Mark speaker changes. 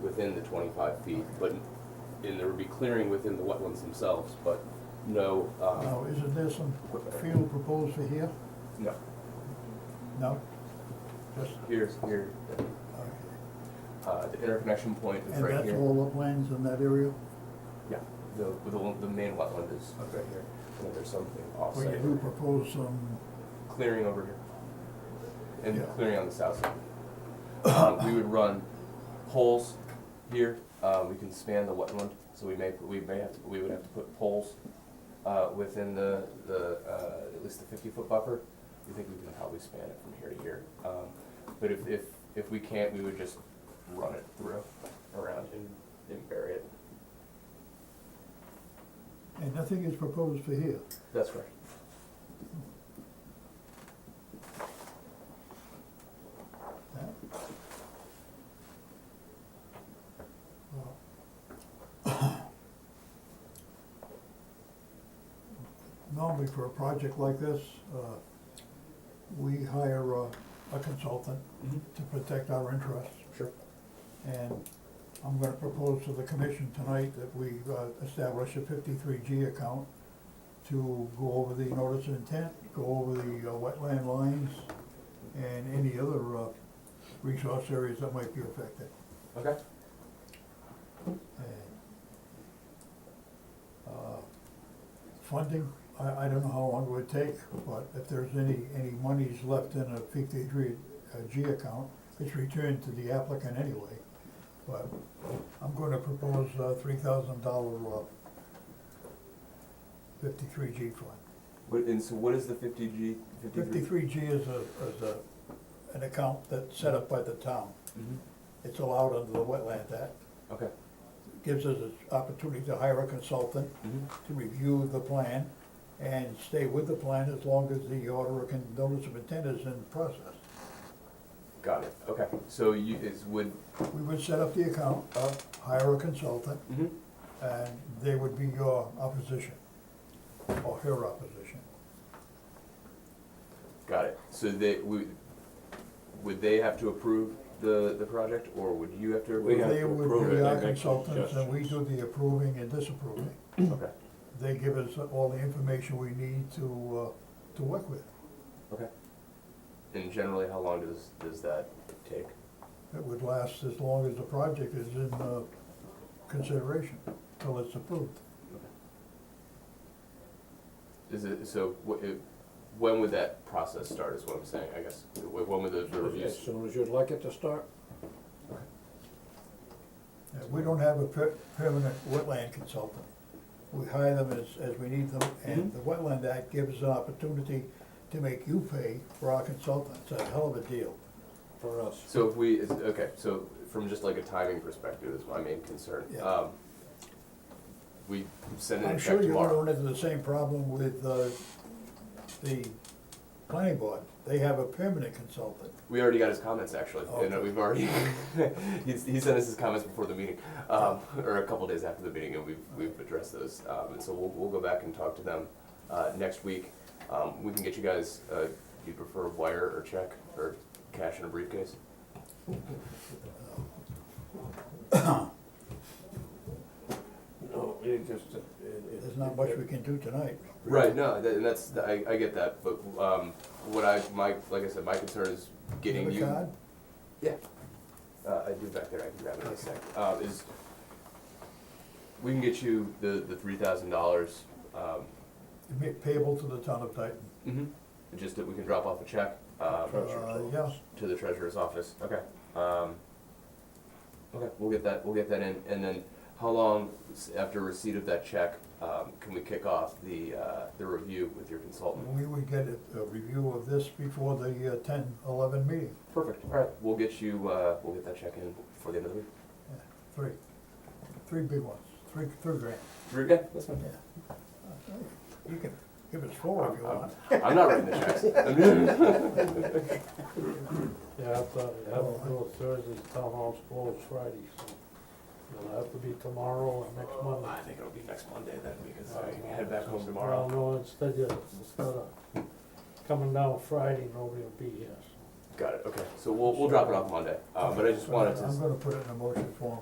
Speaker 1: within the twenty-five feet, but, and there would be clearing within the wetlands themselves, but no, uh,
Speaker 2: Now, isn't there some field proposed for here?
Speaker 3: No,
Speaker 2: No? Just,
Speaker 3: here's, here,
Speaker 2: okay.
Speaker 3: uh, the interconnection point is
Speaker 2: And
Speaker 3: right
Speaker 2: that's
Speaker 3: here.
Speaker 2: all uplands in that area?
Speaker 3: Yeah, the, the, one- the main wetland is right here, and then there's something
Speaker 2: Where you
Speaker 3: offsite,
Speaker 2: do propose some,
Speaker 3: clearing over here.
Speaker 2: Yeah.
Speaker 3: And clearing on the south side. Um, we would run poles here, uh, we can span the wetland, so we may, we may have, to- we would have to put poles, uh, within the, the, uh, at least the fifty-foot buffer. We think we can probably span it from here to here, um, but if, if, if we can't, we would just run it through, around and, and bury it.
Speaker 2: and nothing is proposed for here.
Speaker 3: That's correct.
Speaker 2: Yeah. Well, Normally for a project like this, uh, we hire a a consultant to protect our interests.
Speaker 3: Sure.
Speaker 2: And I'm gonna propose to the commission tonight that we uh, establish a fifty-three G account to go over the notice of intent, go over the uh, wetland lines, and any other uh, resource areas that might be affected.
Speaker 3: Okay.
Speaker 2: And, uh, Funding, I, I don't know how long it would take, but if there's any, any monies left in a fifty-three uh, G account, it's returned to the applicant anyway. But I'm gonna propose a three thousand dollar uh, fifty-three G fund.
Speaker 3: What, and so what is the fifty G, fifty-three?
Speaker 2: Fifty-three G is a, is a, an account that's set up by the town.
Speaker 3: Mhm.
Speaker 2: It's allowed under the Wetland Act.
Speaker 3: Okay.
Speaker 2: Gives us an opportunity to hire a consultant to review the plan and stay with the plan as long as the order can, notice of intent is in process.
Speaker 3: Got it, okay, so you, is, would,
Speaker 2: We would set up the account, uh, hire a consultant,
Speaker 3: mm-hmm.
Speaker 2: and they would be your opposition, or her opposition.
Speaker 3: Got it. So they, would, would they have to approve the, the project, or would you have to?
Speaker 1: We
Speaker 3: approve
Speaker 1: have
Speaker 3: it?
Speaker 2: They
Speaker 1: to
Speaker 2: would
Speaker 1: approve
Speaker 2: be
Speaker 1: it,
Speaker 2: our
Speaker 1: they make
Speaker 2: consultants, and we do the approving and disapproving.
Speaker 3: Okay,
Speaker 2: they give us all the information we need to, uh, to work with.
Speaker 3: okay. And generally, how long does, does that take?
Speaker 2: It would last as long as the project is in, uh, consideration, till it's approved.
Speaker 3: Is it, so, wh- it- when would that process start, is what I'm saying, I guess? Wh- When would those
Speaker 4: As
Speaker 3: reviews?
Speaker 4: soon as you'd like it to start,
Speaker 2: Uh, We don't have a per- permanent wetland consultant. We hire them as, as we need them, and the Wetland Act gives us an opportunity to make you pay for our consultant. It's a hell of a deal.
Speaker 4: for us,
Speaker 3: So if we, is, okay, so from just like a timing perspective is my main concern.
Speaker 2: Yeah.
Speaker 3: Um, We send it
Speaker 2: I'm
Speaker 3: back
Speaker 2: sure
Speaker 3: tomorrow.
Speaker 2: you're gonna run into the same problem with, uh, the planning board. They have a permanent consultant.
Speaker 3: We already got his comments actually, and uh,
Speaker 2: Okay.
Speaker 3: we've already he's, he sent us his comments before the meeting, um, or a couple days after the meeting, and we've we've addressed those. Um, and so we'll we'll go back and talk to them uh, next week. Um, we can get you guys. Uh, do you prefer wire or check or cash in a briefcase?
Speaker 4: no, it just, it. it-
Speaker 2: There's not much we can do tonight.
Speaker 3: Right. No, that, and that's I, I get that, but um, what I my like I said, my concern is getting
Speaker 2: Have a
Speaker 3: you.
Speaker 2: card?
Speaker 3: Yeah, uh, I do back there, I can grab it in a sec, uh, is, we can get you the, the three thousand dollars, um,
Speaker 2: It'd be Payable to the town of Dayton.
Speaker 3: Mm-hmm. just that we can drop off a check, um,
Speaker 4: Treasurer's
Speaker 2: Uh,
Speaker 4: office.
Speaker 2: yeah.
Speaker 3: to the treasurer's office, okay, um, okay, we'll get that, we'll get that in, and then how long s- after receipt of that check, um, can we kick off the, uh, the review with your consultant?
Speaker 2: We would get a, a review of this before the uh, ten, eleven meeting,
Speaker 3: Perfect, alright, we'll get you, uh, we'll get that check in before the end of the week.
Speaker 2: Yeah, three, three big ones, three, three grand,
Speaker 3: Three- Yeah, that's fine.
Speaker 2: yeah. You can give us four if you want.
Speaker 3: I'm not writing the checks. I'm-
Speaker 4: Yeah, I have to, I have to go Thursday, town hall's closed Friday, so it'll have to be tomorrow or next
Speaker 1: Well, I
Speaker 4: Monday.
Speaker 1: think it'll be next Monday then, because I can head back home tomorrow.
Speaker 4: Well, no, instead of, instead of coming down Friday, nobody will be here, so.
Speaker 3: Got it, okay, so we'll, we'll drop it off Monday, uh, but I just wanted to.
Speaker 2: I'm gonna put it in a motion form